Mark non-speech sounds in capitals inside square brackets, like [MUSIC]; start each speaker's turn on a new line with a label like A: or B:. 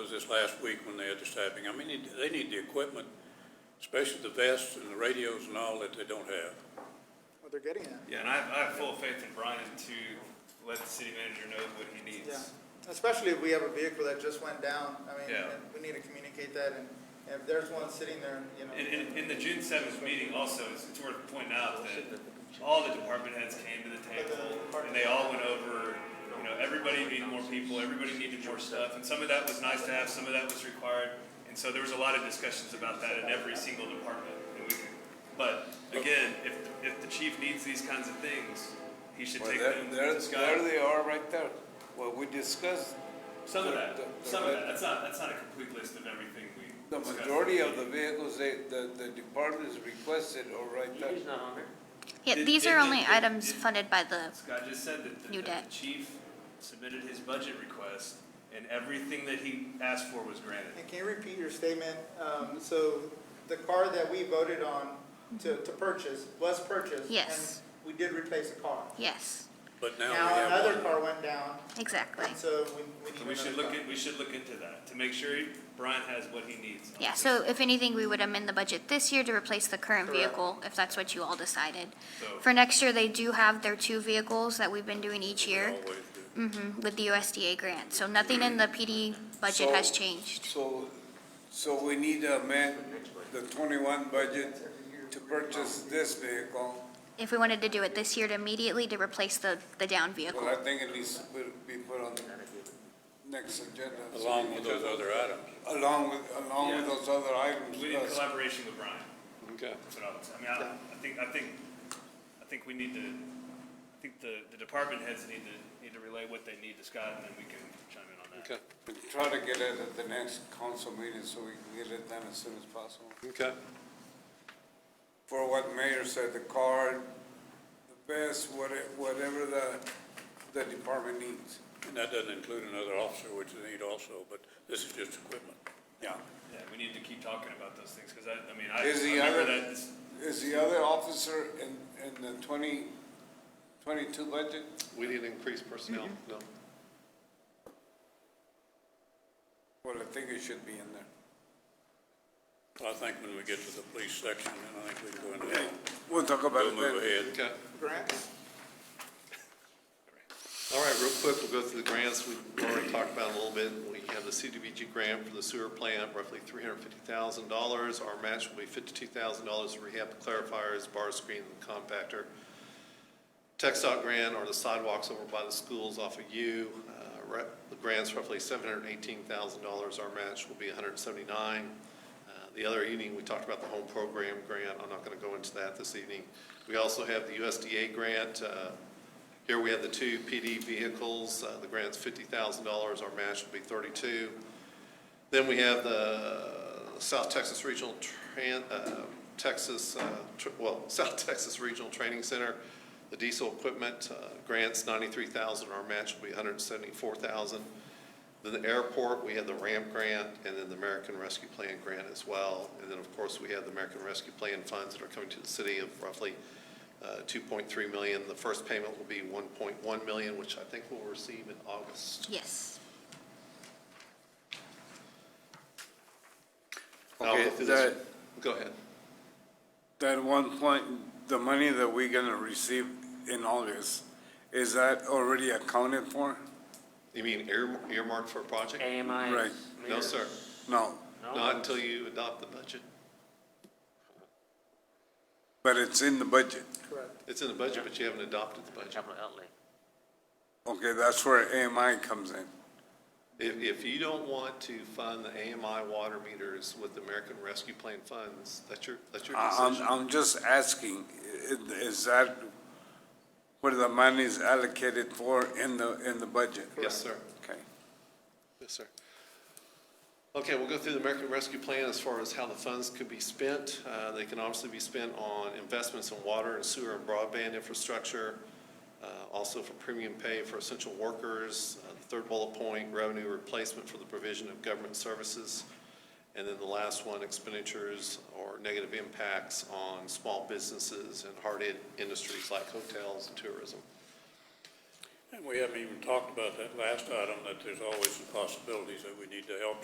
A: was this last week when they had the staffing. I mean, they need- they need the equipment, especially the vests and the radios and all that they don't have.
B: what they're getting at.
C: Yeah, and I have, I have full faith in Brian to let the city manager know what he
B: Yeah,
C: needs.
B: especially if we have a vehicle that just went down, I mean,
C: Yeah.
B: and we need to communicate that, and and if there's one sitting there, you know.
C: And, and, and the June seventh meeting also, it's, it's worth pointing out that all the department heads came to the table, and they all went over, you know, everybody needed more people, everybody needed more stuff, and some of that was nice to have, some of that was required. And so there was a lot of discussions about that in every single department, and we, but again, if, if the chief needs these kinds of things, he should
D: Well,
C: take
D: there,
C: them to
D: there,
C: the
D: there
C: sky.
D: they are right there. Well, we discussed,
C: Some of
D: the-
C: that,
D: the-
C: some of
D: the-
C: that, that's not, that's not a complete list of everything we
D: the
C: discussed.
D: majority of the vehicles they, the, the departments requested are right there.
E: He's not on there.
F: Yeah,
C: Did-
F: these
C: did-
F: are
C: did-
F: only
C: did-
F: items
C: did-
F: funded by the,
C: Scott just said that the,
F: New
C: that the
F: debt.
C: chief submitted his budget request, and everything that he asked for was granted.
B: And can you repeat your statement? Um, so the car that we voted on to, to purchase was purchased.
F: Yes.
B: And we did replace a car.
F: yes,
A: But now we
B: Now another
A: have one.
B: car went down,
F: exactly.
B: so we, we need another
C: So we should look
B: car.
C: at, we should look into that, to make sure he- Brian has what he needs.
F: Yeah, so if anything, we would amend the budget this year to replace the current
B: Correct.
F: vehicle, if that's what you all decided.
C: So-
F: For next year, they do have their two vehicles that we've been doing each year
A: Always do.
F: mhm, with the USDA grant. So nothing in the PD budget has
D: So-
F: changed.
D: So, so we need to amend the twenty-one budget to purchase this vehicle.
F: If we wanted to do it this year to immediately to replace the, the down
D: Well,
F: vehicle.
D: I think it needs to be put on the next agenda.
A: Along with those other items.
D: Along with, along with
C: Yeah.
D: those other items.
C: We need
D: plus-
C: collaboration with Brian,
A: Okay.
C: that's what I would say. I mean, I, I think, I think, I think we need to, I think the, the department heads need to, need to relay what they need to Scott, and then we can chime in on that.
A: Okay,
D: Try to get it at the next council meeting so we can get it done as soon as possible.
A: okay.
D: for what mayor said, the card, the best, whatever, whatever the, the department needs.
A: And that doesn't include another officer, which they need also, but this is just equipment.
D: Yeah.
C: Yeah, we need to keep talking about those things, because I, I mean, I I
D: Is the
C: remember
D: other-
C: that, this-
D: Is the other officer in, in the twenty, twenty-two budget?
G: We didn't increase personnel, no.
D: Well, I think it should be in there.
A: I think when we get to the police section, then I think we can go into that.
D: We'll talk about
A: We'll
D: it
A: move
D: then.
A: ahead.
G: Okay.
B: Grants?
G: All right, real quick, we'll go through the grants. We already talked about it a little bit. We have the CDBG grant for the sewer plant, roughly three hundred fifty thousand dollars. Our match will be fifty-two thousand dollars for rehab clarifiers, bar screen, and compactor. TechStop grant are the sidewalks over by the schools off of U. Uh, re- The grant's roughly seven hundred and eighteen thousand dollars. Our match will be $179,000. Uh, The other evening, we talked about the home program grant. I'm not going to go into that this evening. We also have the USDA grant. Uh, Here we have the two PD vehicles. Uh, The grant's fifty thousand dollars. Our match will be thirty-two. Then we have the South Texas Regional Tran, uh, Texas, uh, tr- well, [LAUGHS] South Texas Regional Training Center. The diesel equipment, uh, grants ninety-three thousand, our match will be hundred and seventy-four thousand. Then the airport, we have the ramp grant, and then the American Rescue Plan grant as well. And then, of course, we have the American Rescue Plan funds that are coming to the city of roughly, uh, two point three million. The first payment will be one point one million, which I think we'll receive in August.
F: Yes.
G: I'll go
D: Okay,
G: through this-
D: that,
G: Go ahead.
D: that one point, the money that we're gonna receive in August, is that already accounted for?
G: You mean ear- earmarked for a project?
E: AMI.
D: Right.
G: No, sir.
D: No,
E: No.
G: Not until you adopt the budget.
D: but it's in the budget.
B: Correct.
G: It's in the budget, but you haven't adopted the budget.
E: Capital outlay.
D: Okay, that's where AMI comes in.
G: If, if you don't want to fund the AMI water meters with the American Rescue Plan funds, that's your, that's your
D: I- I'm,
G: decision.
D: I'm just asking, i- is that where the money is allocated for in the, in the budget?
G: Yes, sir.
D: Okay.
G: Yes, sir. Okay, we'll go through the American Rescue Plan as far as how the funds could be spent. Uh, They can obviously be spent on investments in water and sewer and broadband infrastructure, uh, also for premium pay for essential workers, uh, the third bullet point, revenue replacement for the provision of government services, and then the last one, expenditures or negative impacts on small businesses and hard-hit industries like hotels and tourism.
A: And we haven't even talked about that last item, that there's always some possibilities that we need to help